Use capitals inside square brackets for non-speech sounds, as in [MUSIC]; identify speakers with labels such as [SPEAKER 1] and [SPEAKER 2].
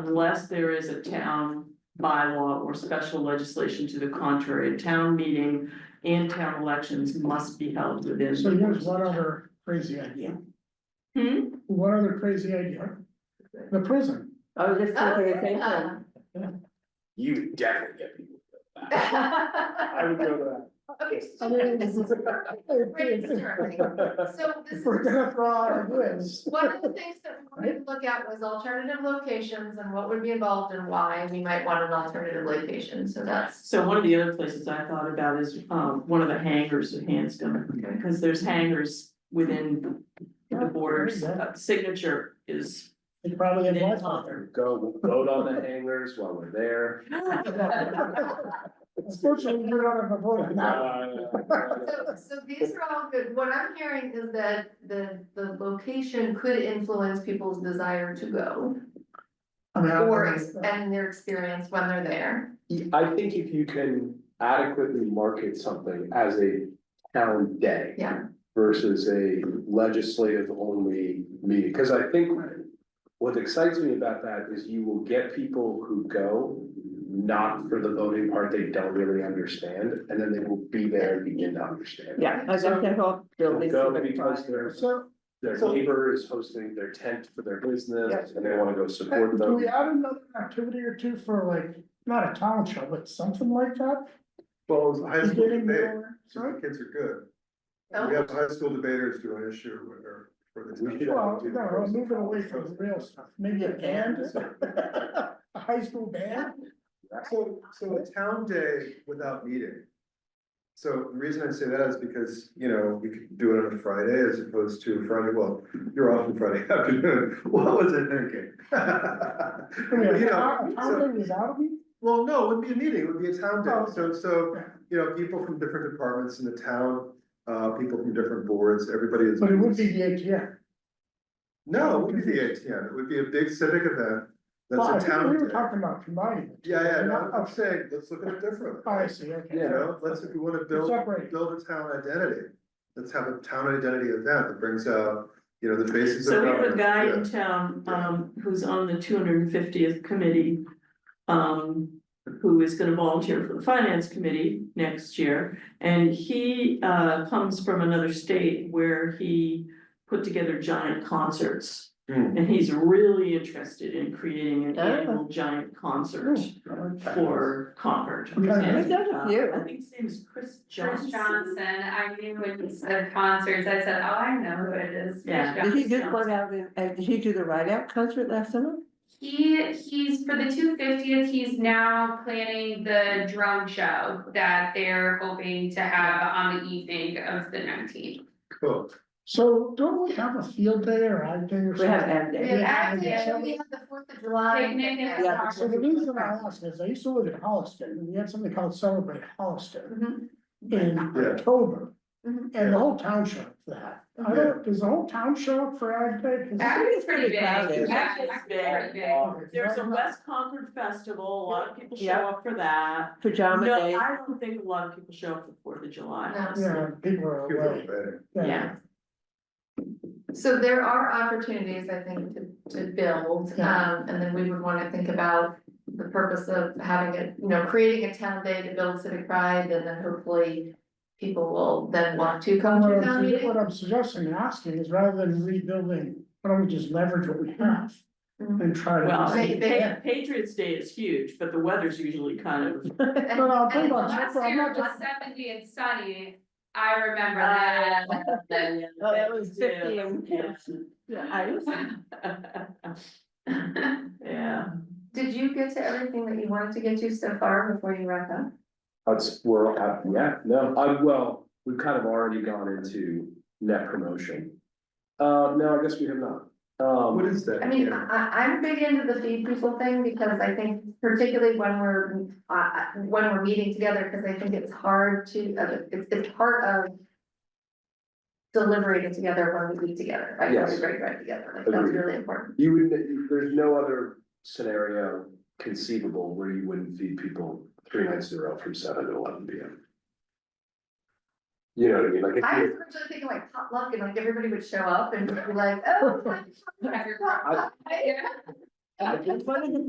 [SPEAKER 1] Unless there is a town bylaw or special legislation to the contrary, town meeting and town elections must be held within.
[SPEAKER 2] So here's one other crazy idea,
[SPEAKER 1] Hmm?
[SPEAKER 2] one other crazy idea, the prison.
[SPEAKER 3] I was just thinking
[SPEAKER 4] Oh,
[SPEAKER 3] the same thing.
[SPEAKER 4] um,
[SPEAKER 5] You would definitely get people. to go
[SPEAKER 4] [LAUGHS]
[SPEAKER 5] back. I would go
[SPEAKER 4] Okay,
[SPEAKER 2] I
[SPEAKER 4] so
[SPEAKER 2] mean, [LAUGHS] this is-
[SPEAKER 4] brainstorming. So
[SPEAKER 2] If
[SPEAKER 4] this is,
[SPEAKER 2] we're gonna throw out our goods,
[SPEAKER 4] one of the things that we could look at was alternative locations and what would be involved and why we might want an alternative location, so that's.
[SPEAKER 1] So one of the other places I thought about is um one of the hangars of Hanscom, because there's hangars within the borders, Uh, signature is.
[SPEAKER 2] they probably have
[SPEAKER 1] within
[SPEAKER 2] lots
[SPEAKER 1] Concord.
[SPEAKER 2] of them.
[SPEAKER 5] that, go, we'll vote on the hangers while we're there.
[SPEAKER 2] Unfortunately, we're not on the
[SPEAKER 5] [LAUGHS]
[SPEAKER 2] board now.
[SPEAKER 4] So, so these are all good, what I'm hearing is that the, the location could influence people's desire to go.
[SPEAKER 2] I mean, I don't
[SPEAKER 4] Or, ex-
[SPEAKER 2] know.
[SPEAKER 4] and their experience when they're there.
[SPEAKER 5] I think if you can adequately market something as a town day.
[SPEAKER 4] Yeah.
[SPEAKER 5] Versus a legislative only meeting, cause I think what excites me about that is you will get people who go. Not for the voting part they don't really understand, and then they will be there and begin to understand.
[SPEAKER 3] Yeah, I just think I'll build
[SPEAKER 5] They'll
[SPEAKER 3] this.
[SPEAKER 5] go
[SPEAKER 3] to the
[SPEAKER 5] because
[SPEAKER 3] front.
[SPEAKER 5] their,
[SPEAKER 2] So,
[SPEAKER 5] their
[SPEAKER 2] So-
[SPEAKER 5] neighbor is hosting their tent for their business
[SPEAKER 2] Yeah.
[SPEAKER 5] and they wanna go
[SPEAKER 2] uh,
[SPEAKER 5] support
[SPEAKER 2] do
[SPEAKER 5] them.
[SPEAKER 2] we add another activity or two for like, not a town show, but something like that?
[SPEAKER 6] Well, it was a high school
[SPEAKER 2] Getting
[SPEAKER 6] debate,
[SPEAKER 2] more-
[SPEAKER 6] so the
[SPEAKER 2] Sorry?
[SPEAKER 6] kids are good. We have high school debaters do an issue with her for the.
[SPEAKER 5] We should-
[SPEAKER 2] Well, no, I'm moving away from the real stuff, maybe a
[SPEAKER 6] [LAUGHS]
[SPEAKER 2] band, a high school band?
[SPEAKER 6] So, so a town day without meeting. So the reason I say that is because, you know, we could do it on a Friday as opposed to Friday, well, you're off on Friday [LAUGHS] afternoon, what was I thinking? [LAUGHS]
[SPEAKER 2] I mean,
[SPEAKER 6] But, you
[SPEAKER 2] a
[SPEAKER 6] know,
[SPEAKER 2] town- a
[SPEAKER 6] so-
[SPEAKER 2] town thing is out of me?
[SPEAKER 6] Well, no, it would be a meeting, it would be a town
[SPEAKER 2] Oh.
[SPEAKER 6] day, so, so, you know, people from different departments in the town, uh, people from different boards, everybody is.
[SPEAKER 2] But it would be the ATM.
[SPEAKER 6] No, it would be the ATM, it would be a big civic event,
[SPEAKER 2] Well, I
[SPEAKER 6] that's a
[SPEAKER 2] think
[SPEAKER 6] town
[SPEAKER 2] We were
[SPEAKER 6] day.
[SPEAKER 2] talking about combining. it.
[SPEAKER 6] Yeah, yeah, no,
[SPEAKER 2] Not-
[SPEAKER 6] I'm saying, let's look at it differently,
[SPEAKER 2] Oh, I see, okay.
[SPEAKER 6] you know, let's, if you wanna build,
[SPEAKER 2] Separate.
[SPEAKER 6] build a town identity. Let's have a town identity event that brings out, you know, the basis
[SPEAKER 1] So
[SPEAKER 6] of
[SPEAKER 1] we have a
[SPEAKER 6] government,
[SPEAKER 1] guy
[SPEAKER 6] yeah,
[SPEAKER 1] in town, um, who's on the two hundred and fiftieth committee. Um, who is gonna volunteer for the finance committee next year. And he, uh, comes from another state where he put together giant concerts.
[SPEAKER 6] Hmm.
[SPEAKER 1] And he's really interested in creating an
[SPEAKER 3] Oh. Hmm.
[SPEAKER 1] annual giant concert for Concord.
[SPEAKER 2] Yeah.
[SPEAKER 1] And,
[SPEAKER 3] There's a
[SPEAKER 1] uh,
[SPEAKER 3] few.
[SPEAKER 1] I think his name is Chris
[SPEAKER 7] Chris
[SPEAKER 1] Johnson.
[SPEAKER 7] Johnson, I knew when he said concerts, I said, oh, I know who it is. Chris
[SPEAKER 1] Yeah.
[SPEAKER 3] Did he do
[SPEAKER 7] Johnson."
[SPEAKER 3] one out, in- uh, did he do the ride out concert last summer?
[SPEAKER 7] He, he's, for the two fiftieth, he's now planning the drum show that they're hoping to have on the evening of the nineteenth.
[SPEAKER 6] cool.
[SPEAKER 2] So don't we have a field day or ag day or
[SPEAKER 3] We have
[SPEAKER 2] something?
[SPEAKER 3] ad
[SPEAKER 4] We
[SPEAKER 3] day.
[SPEAKER 4] have
[SPEAKER 2] Yeah,
[SPEAKER 4] Ag Day,
[SPEAKER 2] yeah.
[SPEAKER 4] we have the Fourth of July.
[SPEAKER 7] Picnic and
[SPEAKER 3] Yeah.
[SPEAKER 2] So the reason I ask is, I used to live in Holliston, and we had something called Celebrate Holliston in
[SPEAKER 4] Mhm.
[SPEAKER 6] Mm-hmm. Yeah. Mm-hmm.
[SPEAKER 2] October.
[SPEAKER 4] Mhm.
[SPEAKER 2] And the whole town showed up for that. I don't, does the whole town show up for ag day? 'Cause-
[SPEAKER 7] That is pretty big.
[SPEAKER 3] crowded.
[SPEAKER 7] That is
[SPEAKER 1] Very
[SPEAKER 7] pretty big.
[SPEAKER 1] There's a West Concord festival, a lot of people show
[SPEAKER 3] Yeah.
[SPEAKER 1] up for that.
[SPEAKER 3] Pajama
[SPEAKER 1] No,
[SPEAKER 3] day.
[SPEAKER 1] I don't think a lot of people show up for Fourth of July,
[SPEAKER 4] No.
[SPEAKER 1] honestly.
[SPEAKER 2] Yeah, people are
[SPEAKER 6] People are
[SPEAKER 2] away.
[SPEAKER 6] better.
[SPEAKER 1] Yeah.
[SPEAKER 4] So there are opportunities, I think, to to build,
[SPEAKER 2] Yeah.
[SPEAKER 4] um, and then we would wanna think about. The purpose of having it, you know, creating a town day to build civic pride, and then hopefully. People will then want to come
[SPEAKER 2] What
[SPEAKER 4] to
[SPEAKER 2] I'm
[SPEAKER 4] town
[SPEAKER 2] sug-
[SPEAKER 4] meeting.
[SPEAKER 2] what I'm suggesting and asking is rather than rebuilding, why don't we just leverage what we have
[SPEAKER 4] Mhm.
[SPEAKER 2] and try to.
[SPEAKER 1] Well,
[SPEAKER 4] They- they-
[SPEAKER 1] Pa- Patriots Day is huge, but the weather's usually kind of,
[SPEAKER 4] And-
[SPEAKER 2] No, no, I'm talking
[SPEAKER 7] And
[SPEAKER 2] about-
[SPEAKER 7] last
[SPEAKER 2] I'm
[SPEAKER 7] year,
[SPEAKER 2] not
[SPEAKER 7] was
[SPEAKER 2] just-
[SPEAKER 7] seventy and sunny, I remember that.
[SPEAKER 4] Uh,
[SPEAKER 3] Oh, that was fifty
[SPEAKER 1] Yeah.
[SPEAKER 3] and. Yeah, I was.
[SPEAKER 1] Yeah,
[SPEAKER 4] Did you get to everything that you wanted to get to so far before you wrap up?
[SPEAKER 5] That's, we're, uh, yeah, no, I, well, we've kind of already gone into net promotion. Uh, no, I guess we have not. Um,
[SPEAKER 6] What is that?
[SPEAKER 4] I mean,
[SPEAKER 6] Yeah.
[SPEAKER 4] I, I- I'm big into the feed people thing because I think particularly when we're, uh, uh, when we're meeting together, because I think it's hard to, uh, it's, it's part of deliberating together when we eat together, right? When we
[SPEAKER 5] Yes.
[SPEAKER 4] break bread together, like that's
[SPEAKER 5] Agreed.
[SPEAKER 4] really important.
[SPEAKER 5] You would, there's no other scenario conceivable where you wouldn't feed people three nights in a row from seven to eleven P M. You know what I mean, like, if
[SPEAKER 4] I was
[SPEAKER 5] you-
[SPEAKER 4] originally thinking like potluck and like everybody would show up and be like, oh.
[SPEAKER 7] Have your-
[SPEAKER 4] potluck.
[SPEAKER 3] It's one of the